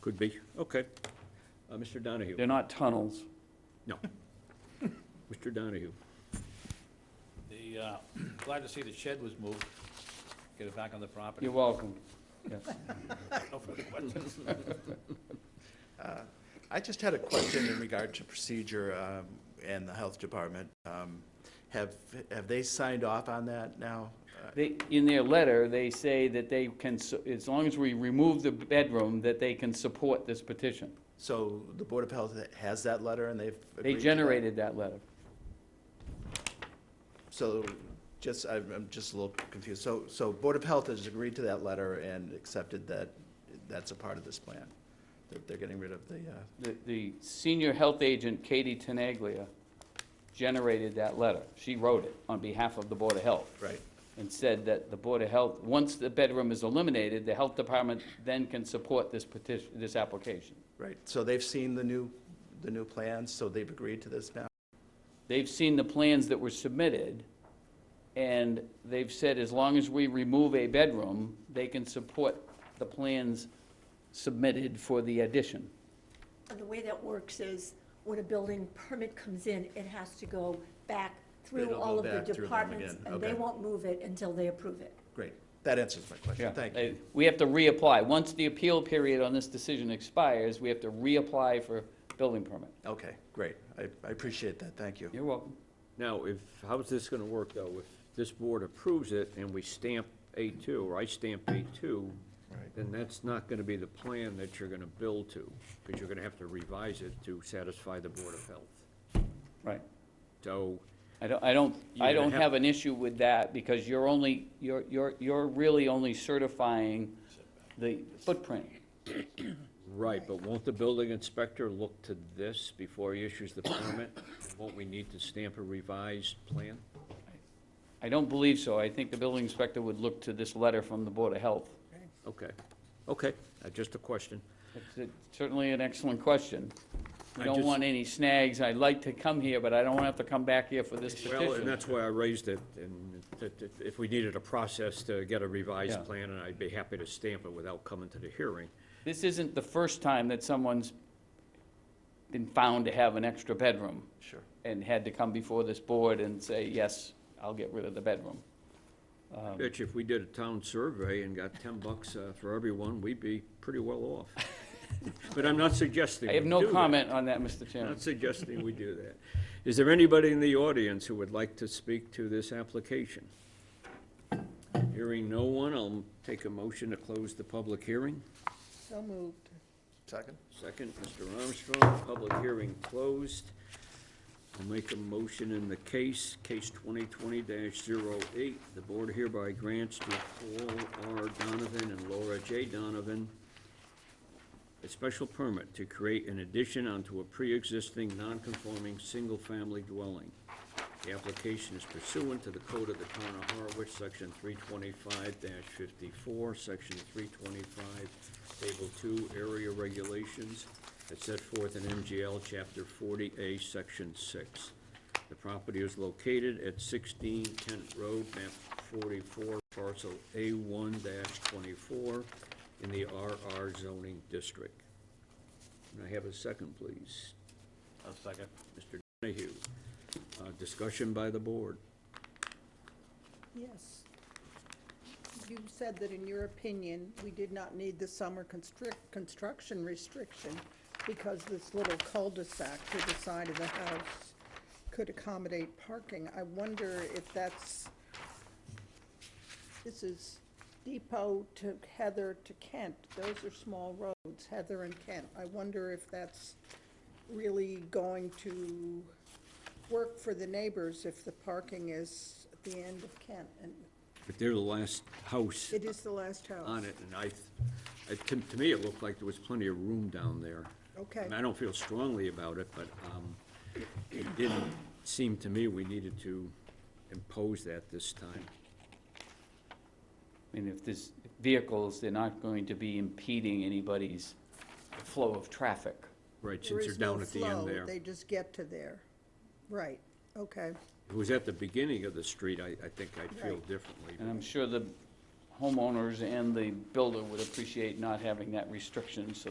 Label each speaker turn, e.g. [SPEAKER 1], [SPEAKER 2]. [SPEAKER 1] Could be, okay. Uh, Mr. Donahue?
[SPEAKER 2] They're not tunnels.
[SPEAKER 1] No. Mr. Donahue?
[SPEAKER 3] The, uh, glad to see the shed was moved. Get it back on the property.
[SPEAKER 2] You're welcome. Yes.
[SPEAKER 3] No further questions.
[SPEAKER 4] I just had a question in regard to procedure um, and the health department. Um, Have, have they signed off on that now? Uh,
[SPEAKER 2] They, in their letter, they say that they can, su- as long as we remove the bedroom, that they can support this petition.
[SPEAKER 4] So the Board of Health has that letter and they've.
[SPEAKER 2] They
[SPEAKER 4] agreed to that?
[SPEAKER 2] generated that letter.
[SPEAKER 4] So just, I'm, I'm just a little confused. So, so Board of Health has agreed to that letter and accepted that that's a part of this plan, that they're getting rid of the, uh,
[SPEAKER 2] The, the senior health agent, Katie Tenaglia, generated that letter. She wrote it on behalf of the Board of Health.
[SPEAKER 4] right.
[SPEAKER 2] And said that the Board of Health, once the bedroom is eliminated, the health department then can support this petition, this application.
[SPEAKER 4] Right, so they've seen the new, the new plans, so they've agreed to this now?
[SPEAKER 2] They've seen the plans that were submitted, and they've said as long as we remove a bedroom, they can support the plans submitted for the addition.
[SPEAKER 5] And the way that works is, when a building permit comes in, it has to go back through
[SPEAKER 4] It'll go
[SPEAKER 5] all of
[SPEAKER 4] back
[SPEAKER 5] the
[SPEAKER 4] through them
[SPEAKER 5] departments,
[SPEAKER 4] again,
[SPEAKER 5] and they
[SPEAKER 4] okay.
[SPEAKER 5] won't move it until they approve it.
[SPEAKER 4] Great, that answers my question, thank you.
[SPEAKER 2] They- We have to reapply. Once the appeal period on this decision expires, we have to reapply for building permit.
[SPEAKER 4] Okay, great, I, I appreciate that, thank you.
[SPEAKER 2] You're welcome.
[SPEAKER 1] Now, if, how's this gonna work, though? If this board approves it and we stamp A2, or I stamp A2,
[SPEAKER 4] Right.
[SPEAKER 1] then that's not gonna be the plan that you're gonna build to, because you're gonna have to revise it to satisfy the Board of Health.
[SPEAKER 2] Right.
[SPEAKER 1] So,
[SPEAKER 2] I don't, I don't, I
[SPEAKER 1] You're gonna
[SPEAKER 2] don't
[SPEAKER 1] have-
[SPEAKER 2] have an issue with that, because you're only, you're, you're, you're really only certifying the footprint.
[SPEAKER 1] right, but won't the building inspector look to this before he issues the permit? Won't we need to stamp a revised plan?
[SPEAKER 2] I don't believe so. I think the building inspector would look to this letter from the Board of Health.
[SPEAKER 1] Okay, okay, uh, just a question.
[SPEAKER 2] It's it's certainly an excellent question. We
[SPEAKER 1] I
[SPEAKER 2] don't
[SPEAKER 1] just-
[SPEAKER 2] want any snags. I'd like to come here, but I don't want to have to come back here for this
[SPEAKER 1] Well, and
[SPEAKER 2] petition.
[SPEAKER 1] that's why I raised it, and that if- if we needed a process to get a revised
[SPEAKER 2] Yeah.
[SPEAKER 1] plan, and I'd be happy to stamp it without coming to the hearing.
[SPEAKER 2] This isn't the first time that someone's been found to have an extra bedroom
[SPEAKER 4] Sure.
[SPEAKER 2] and had to come before this board and say, yes, I'll get rid of the bedroom. Um.
[SPEAKER 1] Bitch, if we did a town survey and got ten bucks uh, for everyone, we'd be pretty well off. But I'm not suggesting
[SPEAKER 2] I
[SPEAKER 1] we
[SPEAKER 2] have no
[SPEAKER 1] do that.
[SPEAKER 2] comment on that, Mr. Chairman.
[SPEAKER 1] Not suggesting we do that. Is there anybody in the audience who would like to speak to this application? Hearing no one, I'll take a motion to close the public hearing.
[SPEAKER 6] So moved.
[SPEAKER 4] Second?
[SPEAKER 1] Second, Mr. Armstrong, public hearing closed. I'll make a motion in the case, case twenty twenty 8 The board hereby grants to Paul R. Donovan and Laura J. Donovan a special permit to create an addition onto a pre-existing non-conforming single-family dwelling. The application is pursuant to the Code of the Town of Harwich, Section three twenty-five fifty-four, Section three twenty-five, Table two, Area Regulations, as set forth in MGL Chapter forty A, Section six. The property is located at sixteen Kent Road, map forty-four, parcel A one twenty-four, in the RR zoning district. Can I have a second, please?
[SPEAKER 3] A second.
[SPEAKER 1] Mr. Donahue, Uh, discussion by the board.
[SPEAKER 6] Yes. You said that in your opinion, we did not need the summer constrict, construction restriction because this little cul-de-sac to the side of the house could accommodate parking. I wonder if that's, this is Depot to Heather to Kent. Those are small roads, Heather and Kent. I wonder if that's really going to work for the neighbors if the parking is at the end of Kent, and
[SPEAKER 1] If they're the last house
[SPEAKER 6] it is the last house.
[SPEAKER 1] on it, and I, it- to, to me, it looked like there was plenty of room down there.
[SPEAKER 6] Okay.
[SPEAKER 1] And I don't feel strongly about it, but, um, it didn't seem to me we needed to impose that this time.
[SPEAKER 2] I mean, if there's vehicles, they're not going to be impeding anybody's flow of traffic.
[SPEAKER 1] Right, since
[SPEAKER 6] There
[SPEAKER 1] they're
[SPEAKER 6] is no
[SPEAKER 1] down at the end
[SPEAKER 6] flow,
[SPEAKER 1] there.
[SPEAKER 6] They just get to there. Right, okay,
[SPEAKER 1] If it was at the beginning of the street, I, I think I'd feel
[SPEAKER 6] Right.
[SPEAKER 1] differently.
[SPEAKER 2] And I'm sure the homeowners and the builder would appreciate not having that restriction, so